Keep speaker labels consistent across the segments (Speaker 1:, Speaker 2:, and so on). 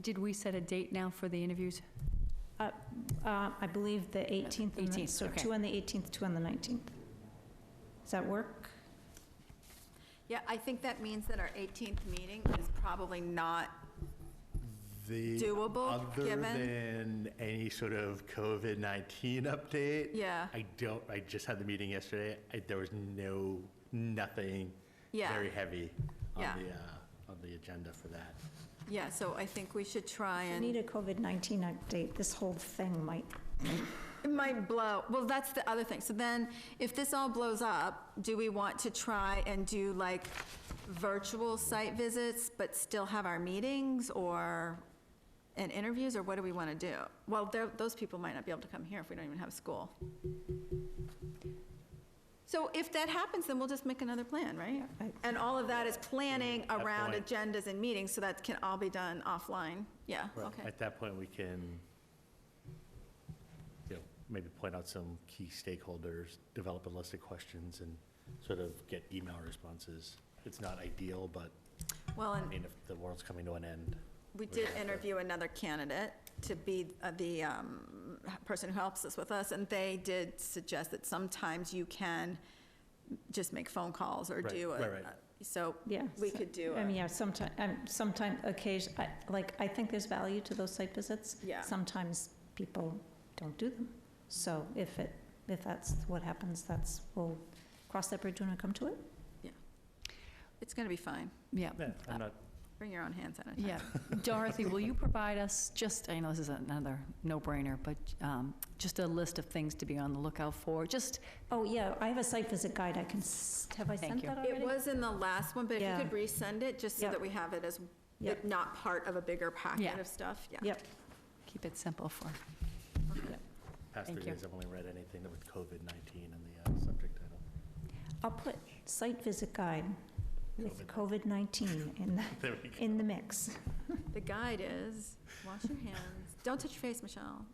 Speaker 1: did we set a date now for the interviews?
Speaker 2: Uh, I believe the 18th and the,
Speaker 1: 18th,
Speaker 2: so
Speaker 1: okay.
Speaker 2: two on the 18th, two on the 19th. Does that work?
Speaker 3: Yeah, I think that means that our 18th meeting is probably not,
Speaker 4: The
Speaker 3: Doable, given-
Speaker 4: Other than any sort of COVID-19 update?
Speaker 3: Yeah.
Speaker 4: I don't, I just had the meeting yesterday. I- There was no, nothing
Speaker 3: Yeah.
Speaker 4: very heavy on
Speaker 3: Yeah.
Speaker 4: the, uh, on the agenda for that.
Speaker 3: yeah, so I think we should try
Speaker 2: We Need
Speaker 3: and,
Speaker 2: a COVID-19 update, this whole thing might,
Speaker 3: it might blow, well, that's the other thing. So then, if this all blows up, do we want to try and do like virtual site visits, but still have our meetings or, and interviews, or what do we want to do? Well, there- those people might not be able to come here if we don't even have school. So if that happens, then we'll just make another plan, right?
Speaker 2: I-
Speaker 3: And all of that is planning
Speaker 4: At
Speaker 3: around
Speaker 4: point.
Speaker 3: agendas and meetings, so that can all be done offline. Yeah, okay.
Speaker 4: At that point, we can, you know, maybe point out some key stakeholders, develop a list of questions, and sort of get email responses. It's not ideal, but,
Speaker 3: Well,
Speaker 4: I
Speaker 3: and
Speaker 4: mean, if the world's coming to an end.
Speaker 3: we
Speaker 4: we
Speaker 3: did
Speaker 4: have to-
Speaker 3: interview another candidate to be uh, the um, person who helps us with us, and they did suggest that sometimes you can just make phone calls or
Speaker 4: Right,
Speaker 3: do
Speaker 4: right, right.
Speaker 3: a, so
Speaker 2: yeah.
Speaker 3: we
Speaker 2: so-
Speaker 3: could do
Speaker 2: I mean,
Speaker 3: a,
Speaker 2: yeah, sometime, um, sometime, occasion, I- like, I think there's value to those site visits.
Speaker 3: Yeah.
Speaker 2: Sometimes people don't do them. So if it, if that's what happens, that's, we'll cross that bridge when we come to it.
Speaker 3: it's going to be fine.
Speaker 1: Yeah.
Speaker 4: Yeah, I'm not,
Speaker 3: Bring your own hand sanitizer.
Speaker 1: Yeah. Dorothy, will you provide us just, I know this is another no-brainer, but um, just a list of things to be on the lookout for, just,
Speaker 2: Oh, yeah, I have a site visit guide I can, s- have I
Speaker 1: Thank
Speaker 2: sent
Speaker 1: you.
Speaker 2: that already?
Speaker 3: It was in the last one, but if you
Speaker 2: Yeah.
Speaker 3: could resend it, just so
Speaker 2: Yep.
Speaker 3: that we have it as,
Speaker 2: Yep.
Speaker 3: not part of a bigger
Speaker 1: Yeah.
Speaker 3: packet of stuff, yeah.
Speaker 2: Yep,
Speaker 1: keep it simple for,
Speaker 4: past three
Speaker 1: Thank you.
Speaker 4: days, I've only read anything with COVID-19 in the uh, subject title.
Speaker 2: I'll put site visit guide with COVID-19 in the,
Speaker 4: There we go.
Speaker 2: in the mix.
Speaker 3: The guide is, wash your hands, don't touch your face, Michelle.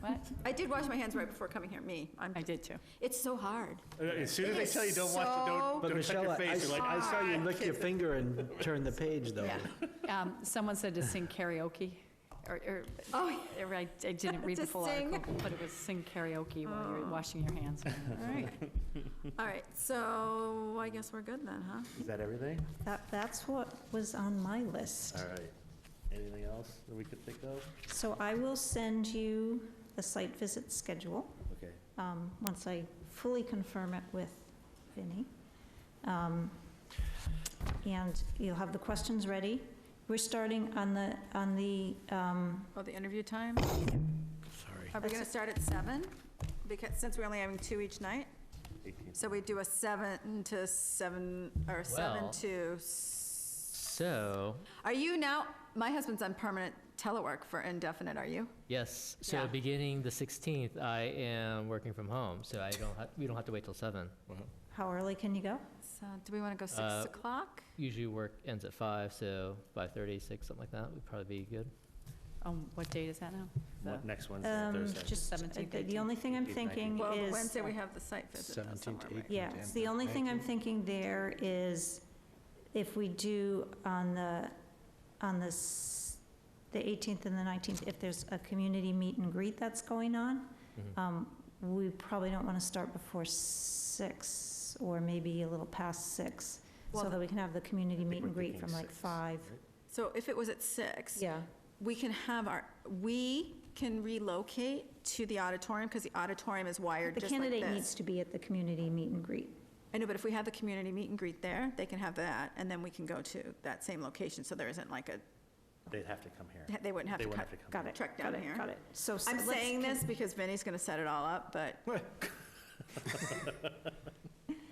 Speaker 1: what?
Speaker 3: I did wash my hands right before coming here, me. I'm,
Speaker 1: I did too.
Speaker 3: it's so hard.
Speaker 4: Uh, As soon as
Speaker 3: It
Speaker 4: they
Speaker 3: is
Speaker 4: tell you don't watch, it,
Speaker 3: so-
Speaker 5: But
Speaker 4: don't, don't touch
Speaker 5: Michelle,
Speaker 4: your
Speaker 5: I- I
Speaker 4: face, you're like,
Speaker 5: I saw you lick your
Speaker 3: "Ah."
Speaker 5: finger and turn the page, though.
Speaker 1: Yeah. Um, Someone said to sing karaoke, or, or,
Speaker 3: Oh,
Speaker 1: or I I didn't read
Speaker 3: To
Speaker 1: the full
Speaker 3: sing.
Speaker 1: article, but it was sing Oh. karaoke while you're washing your hands.
Speaker 3: all right. All right, so I guess we're good then, huh?
Speaker 4: is that everything?
Speaker 2: That, that's what was on my list.
Speaker 4: All right. Anything else that we could think of?
Speaker 2: So I will send you the site visit schedule,
Speaker 4: Okay.
Speaker 2: um, once I fully confirm it with Vinnie. Um, And you'll have the questions ready. We're starting on the, on the, um,
Speaker 3: Oh, the interview time?
Speaker 4: Sorry.
Speaker 3: Are we going to start at seven? Because, since we're only having two each night? So we do a seven to seven, or seven
Speaker 6: Well-
Speaker 3: to s-
Speaker 6: So,
Speaker 3: Are you now, my husband's on permanent telework for indefinite, are you?
Speaker 6: yes, so
Speaker 3: Yeah.
Speaker 6: beginning the 16th, I am working from home, so I don't ha- we don't have to wait till 7.
Speaker 2: how early can you go?
Speaker 3: So do we want to go six
Speaker 6: Uh,
Speaker 3: o'clock?
Speaker 6: Usually work ends at 5, so 5:30, 6, something like that would probably be good.
Speaker 1: Um, What date is that now? The-
Speaker 4: Next Wednesday,
Speaker 2: Um,
Speaker 4: Thursday.
Speaker 2: Just,
Speaker 1: 17th,
Speaker 2: the- the only thing I'm
Speaker 4: 18th, 19th.
Speaker 2: thinking
Speaker 3: Well,
Speaker 2: is.
Speaker 3: Wednesday we have the site visit. though
Speaker 5: 17 to
Speaker 3: somewhere, right?
Speaker 5: 18.
Speaker 2: Yeah,
Speaker 5: Content,
Speaker 2: the only thing I'm
Speaker 5: thank you.
Speaker 2: thinking there is if we do on the, on this, the 18th and the 19th, if there's a community meet and greet that's going on,
Speaker 6: Mm-hmm.
Speaker 2: um, we probably don't want to start before six or maybe a little past six, so
Speaker 3: Well-
Speaker 2: that we can have the community
Speaker 4: think
Speaker 2: meet
Speaker 4: we're
Speaker 2: and greet
Speaker 4: thinking
Speaker 2: from like
Speaker 4: six,
Speaker 2: five.
Speaker 3: So if it was at six,
Speaker 2: Yeah,
Speaker 3: we can have our, we can relocate to the auditorium because the auditorium is wired
Speaker 2: the
Speaker 3: just like
Speaker 2: candidate needs
Speaker 3: this.
Speaker 2: to be at the community meet and greet.
Speaker 3: I know, but if we have the community meet and greet there, they can have that and then we can go to that same location. So there isn't like a,
Speaker 4: They'd have to come here.
Speaker 3: they wouldn't have
Speaker 4: They
Speaker 3: to
Speaker 4: wouldn't
Speaker 3: cut.
Speaker 4: have to come.
Speaker 2: Got it,
Speaker 3: Track
Speaker 2: got
Speaker 3: down
Speaker 2: it,
Speaker 3: here.
Speaker 2: got it. So. s-
Speaker 3: I'm
Speaker 2: let's
Speaker 3: saying
Speaker 2: con-
Speaker 3: this because Vinny's going to set it all up, but.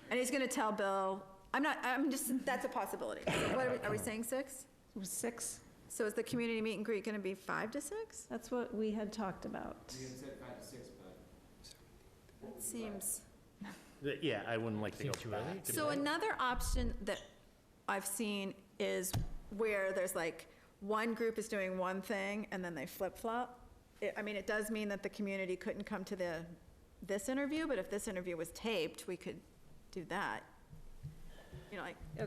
Speaker 3: And he's going to tell Bill, I'm not, I'm just, that's a possibility. What are we, are we saying six?
Speaker 2: Six,
Speaker 3: So is the community meet and greet going to be five to six?
Speaker 2: that's what we had talked about.
Speaker 3: It Seems.
Speaker 4: Th- Yeah, I wouldn't like to go
Speaker 6: Seems too early
Speaker 4: back.
Speaker 6: to
Speaker 3: So another option that I've seen is where there's like, one group is doing one thing and then they flip-flop. It- I mean, it does mean that the community couldn't come to the, this interview, but if this interview was taped, we could do that. You know, like,